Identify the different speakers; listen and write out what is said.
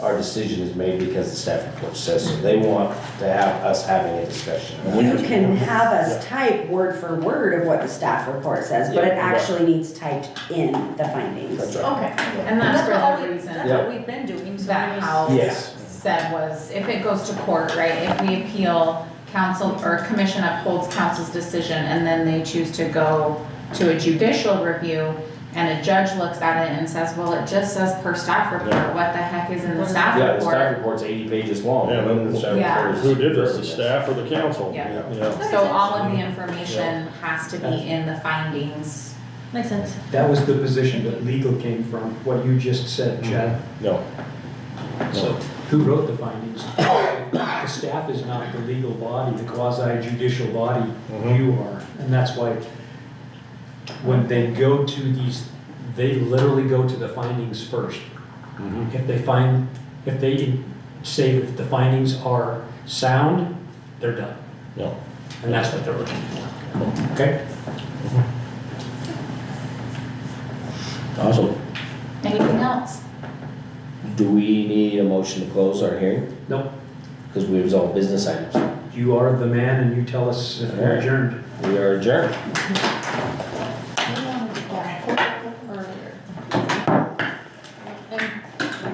Speaker 1: our decision is made because the staff report says so. They want to have us having a discussion.
Speaker 2: We-
Speaker 3: You can have us type word for word of what the staff report says, but
Speaker 1: Yeah,
Speaker 3: it
Speaker 1: right.
Speaker 3: actually needs typed in the findings.
Speaker 1: That's right.
Speaker 4: Okay, and
Speaker 5: And
Speaker 4: that's
Speaker 5: that's what
Speaker 4: for
Speaker 5: all
Speaker 4: the
Speaker 5: we,
Speaker 4: reason
Speaker 5: that's what we've been doing, so we
Speaker 4: that
Speaker 5: just,
Speaker 4: house
Speaker 1: Yes.
Speaker 4: said was, if it goes to court, right, if we appeal, council or commission upholds council's decision, and then they choose to go to a judicial review, and a judge looks at it and says, well, it just says per staff report, what the heck is in the staff
Speaker 1: Yeah, the
Speaker 4: report?
Speaker 1: staff report's eighty pages long.
Speaker 2: Yeah, but-
Speaker 1: and the staff
Speaker 4: Yeah.
Speaker 1: report is-
Speaker 2: Who did this, the staff or the council?
Speaker 4: Yeah.
Speaker 2: Yeah.
Speaker 4: So all of the information has to be in the findings.
Speaker 5: makes sense.
Speaker 6: That was the position that legal came from, what you just said, Chad.
Speaker 1: No,
Speaker 6: So who wrote the findings? The staff is not the legal body, the quasi judicial body,
Speaker 1: Mhm.
Speaker 6: you are. And that's why when they go to these, they literally go to the findings first. If they find, if they say that the findings are sound, they're done.
Speaker 1: no.
Speaker 6: And that's what they're looking for. Okay?
Speaker 1: Awesome.
Speaker 4: Anything else?
Speaker 1: Do we need a motion to close our hearing?
Speaker 6: Nope,
Speaker 1: Because we resolved business items.
Speaker 6: you are the man and you tell us if we're adjourned.
Speaker 1: We are adjourned.